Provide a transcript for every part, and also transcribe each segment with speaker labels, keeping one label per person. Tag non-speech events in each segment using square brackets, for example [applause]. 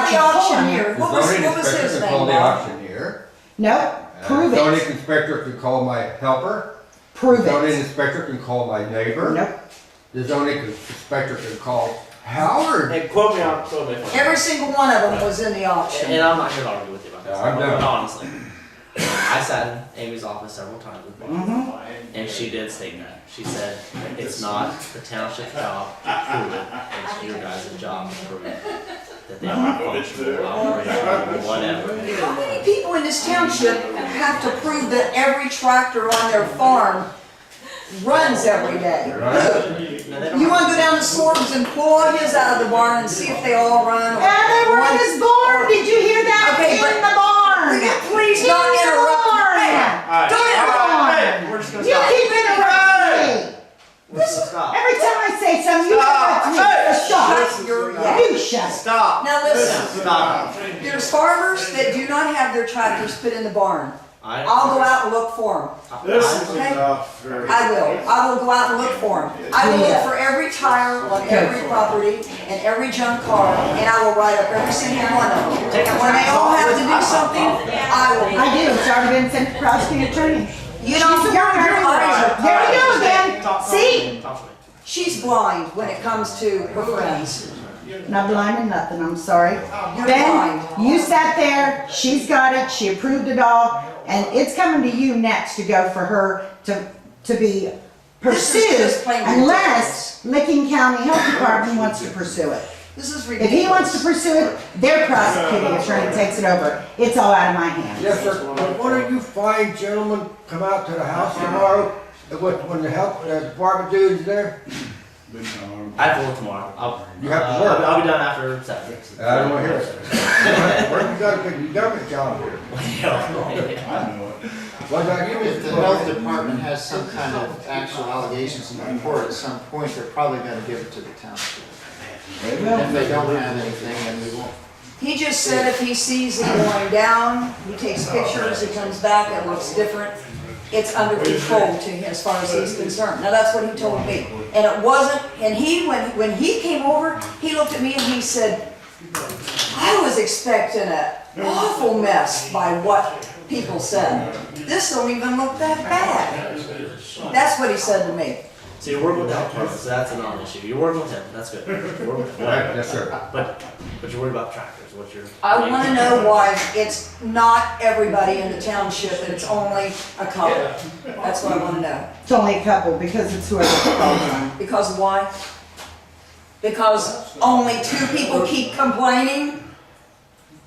Speaker 1: the auctioneer. What was,
Speaker 2: zoning
Speaker 1: what was
Speaker 2: inspector
Speaker 1: his
Speaker 2: can call
Speaker 1: name?
Speaker 2: the
Speaker 1: Bob?
Speaker 2: auctioneer.
Speaker 3: Nope,
Speaker 2: Uh,
Speaker 3: prove
Speaker 2: Zoning
Speaker 3: it,
Speaker 2: inspector can call my helper.
Speaker 3: prove
Speaker 2: Zoning
Speaker 3: it.
Speaker 2: inspector can call my neighbor.
Speaker 3: Nope,
Speaker 2: The zoning inspector can call Howard.
Speaker 4: And quote me on quote me. if I'm-
Speaker 1: Every single one of them was in the
Speaker 4: And
Speaker 1: auction.
Speaker 4: I'm not here to argue with you about this.
Speaker 2: Yeah, I'm
Speaker 4: but
Speaker 2: done.
Speaker 4: Honestly, I sat in Amy's office several times with Bob, and she did state that. She said it's not the township's job to prove it. It's your guys' job to prove it that they are functional, operational, whatever.
Speaker 1: How many people in this township have to prove that every tractor on their farm runs every day?
Speaker 2: Right?
Speaker 4: No, they don't
Speaker 1: You wanna go down to Sorbs and pull all his out of the barn and see if they all run?
Speaker 3: and they were in his barn, did you hear that?
Speaker 1: Okay, but-
Speaker 3: In the barn.
Speaker 1: Please don't
Speaker 3: In the
Speaker 1: interrupt. me.
Speaker 3: barn.
Speaker 4: All right.
Speaker 1: Don't
Speaker 4: All right,
Speaker 3: interrupt.
Speaker 4: hey, We're just gonna
Speaker 3: You
Speaker 4: stop.
Speaker 3: keep interrupting me.
Speaker 4: We're just gonna stop.
Speaker 3: Every time I say something, you interrupt
Speaker 4: Stop.
Speaker 3: me, so
Speaker 1: Shut
Speaker 3: shut.
Speaker 1: your mouth.
Speaker 3: You shut.
Speaker 4: Stop.
Speaker 1: Now listen,
Speaker 4: Stop.
Speaker 1: there's farmers that do not have their tractors put in the barn.
Speaker 4: I-
Speaker 1: I'll go out and look for
Speaker 4: I-
Speaker 5: This is
Speaker 1: Okay.
Speaker 5: enough.
Speaker 1: them. I will. I will go out and look for them. I will look for every tire on every property and every junk car, and I will write up every single one of them. And when they all have to do something, I will.
Speaker 3: I do, it's already been sent to prosecuting attorney.
Speaker 1: You don't,
Speaker 3: She's
Speaker 1: your
Speaker 3: younger.
Speaker 1: eyes are
Speaker 3: There we
Speaker 1: blind.
Speaker 3: go again.
Speaker 4: Talk to me.
Speaker 3: See?
Speaker 4: Talk to me.
Speaker 1: She's blind when it comes to her friends.
Speaker 3: Not blind or nothing, I'm sorry.
Speaker 1: You're
Speaker 3: Ben,
Speaker 1: blind.
Speaker 3: you sat there, she's got it, she approved it all, and it's coming to you next to go for her to, to be
Speaker 1: This is
Speaker 3: pursued
Speaker 1: just plain
Speaker 3: unless Licking County Health Department wants to pursue it.
Speaker 1: This is
Speaker 3: If
Speaker 1: ridiculous.
Speaker 3: he wants to pursue it, their prosecuting attorney takes it over. It's all out of my hands.
Speaker 5: Yes,
Speaker 2: Yes, sir. Why don't you fine gentlemen come out to the house tomorrow? And When when the help, the department dude's
Speaker 6: [laughs]
Speaker 2: there?
Speaker 4: I have to work tomorrow. I'll,
Speaker 2: You have to
Speaker 4: uh,
Speaker 2: work.
Speaker 4: I'll, I'll be done after seven.
Speaker 2: I don't wanna hear it.
Speaker 4: [laughs]
Speaker 2: Where you got a good government job here? What about you, Mr.
Speaker 6: If the health
Speaker 2: Bowen?
Speaker 6: department has some kind of actual allegations in the report at some point, they're probably gonna give it to the township. And if they don't have anything, then we won't.
Speaker 1: He just said if he sees it going down, he takes pictures, he comes back, it looks different. It's under control to him as far as he's concerned. Now, that's what he told me. And it wasn't, and he, when, when he came over, he looked at me and he said, I was expecting an awful mess by what people said. This don't even look that bad. That's what he said to me.
Speaker 4: So you're working with that person, so that's a non-issue. You're working with him, that's good. You're working with him,
Speaker 2: Right,
Speaker 4: whatever.
Speaker 2: Yes, sir.
Speaker 4: But, but you're worried about tractors, what's your?
Speaker 1: I wanna know why it's not everybody in the township and it's only a couple. That's what I wanna know.
Speaker 3: It's only a couple because it's whoever calls on.
Speaker 1: Because why? Because only two people keep complaining?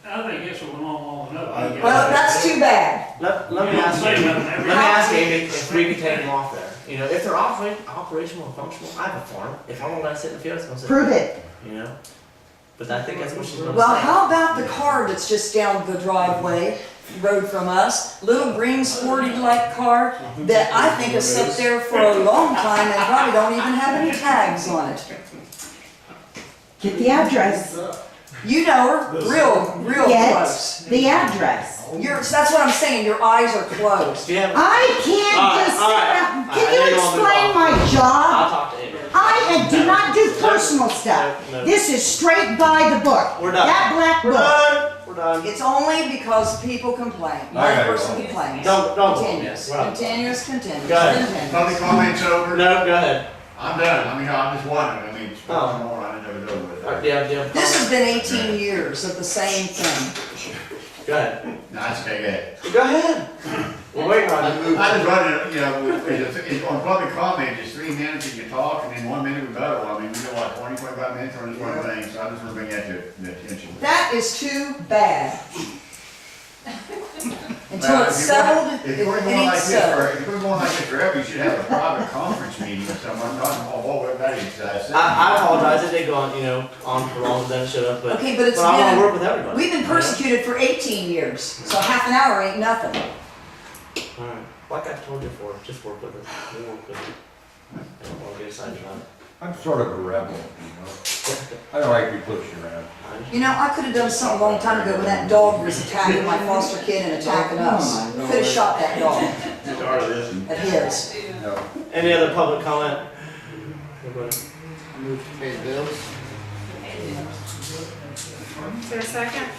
Speaker 7: I think it's a long, long enough.
Speaker 1: Well, that's too bad.
Speaker 4: Let, let me ask you, let me ask Amy if we can take them off there. You know, if they're operating, operational and functional, I have a farm. If I want to sit in the field, I'm gonna sit. in the
Speaker 3: Prove it.
Speaker 4: field, You know? But I think that's what she's gonna say.
Speaker 1: Well, how about the car that's just down the driveway, road from us? Little green sporty like car that I think has sat there for a long time and probably don't even have any tags on it.
Speaker 3: Get the address.
Speaker 1: You know her, real, real
Speaker 3: Get
Speaker 1: close.
Speaker 3: the address.
Speaker 1: Your, that's what I'm saying, your eyes are closed.
Speaker 4: Do you have,
Speaker 3: I can't
Speaker 4: All right,
Speaker 3: just sit up. Can you
Speaker 4: all right, all right, I know you wanna move
Speaker 3: explain
Speaker 4: on.
Speaker 3: my job?
Speaker 4: I'll talk to Amy.
Speaker 3: I do not do personal stuff.
Speaker 4: No, no.
Speaker 3: This is straight by the book.
Speaker 4: We're done.
Speaker 3: That black
Speaker 4: We're
Speaker 3: book.
Speaker 4: done, we're done.
Speaker 1: It's only because people complain. One
Speaker 2: Okay.
Speaker 1: person complains.
Speaker 4: Don't, don't.
Speaker 1: Continuous,
Speaker 4: We're done.
Speaker 1: continuous, continuous,
Speaker 4: Go ahead.
Speaker 1: continuous.
Speaker 5: comments over?
Speaker 4: No, go ahead.
Speaker 5: I'm done, I mean, I'm just wondering, I mean, it's
Speaker 4: Oh.
Speaker 5: going on, I never know with
Speaker 4: All right,
Speaker 5: it.
Speaker 4: do you have, do you have?
Speaker 1: This has been eighteen years of the same thing.
Speaker 4: Go ahead.
Speaker 5: Nice, okay,
Speaker 4: Go ahead. We're waiting on you.
Speaker 5: I just wanted, you know, it's- it's on public comment, it's three minutes and you talk, and then one minute we go, I mean, we go what, twenty, twenty-five minutes on this one thing, so I just wanna bring that to the attention.
Speaker 1: That is too bad. Until
Speaker 5: Now,
Speaker 1: it's
Speaker 5: if you're going-
Speaker 1: settled,
Speaker 5: If
Speaker 1: it
Speaker 5: you're going like
Speaker 1: needs
Speaker 5: this,
Speaker 1: settled.
Speaker 5: for- if you're going like this forever, you should have a private conference meeting with someone, not involve all everybody's, uh, sitting.
Speaker 4: I, I apologize. It did go on, you know, on for longer than it should have. But
Speaker 1: Okay, but it's
Speaker 4: I want to
Speaker 1: been-
Speaker 4: work with everybody.
Speaker 1: We've been persecuted for eighteen years, so half an hour ain't nothing.
Speaker 4: All right. Like I told you before, just work with it. We'll work with it. I don't want to get excited about it.
Speaker 2: I'm sort of a rebel, you know? I don't like to be pushed around.
Speaker 4: I understand.
Speaker 1: You know, I could've done something a long time ago when that dog was attacking my foster kid and attacking us. Could've shot that dog
Speaker 5: Sorry, listen.
Speaker 1: at his.
Speaker 2: No.
Speaker 4: Any other public comment? Nobody?
Speaker 6: Move to pay the bills.
Speaker 8: Is there a second?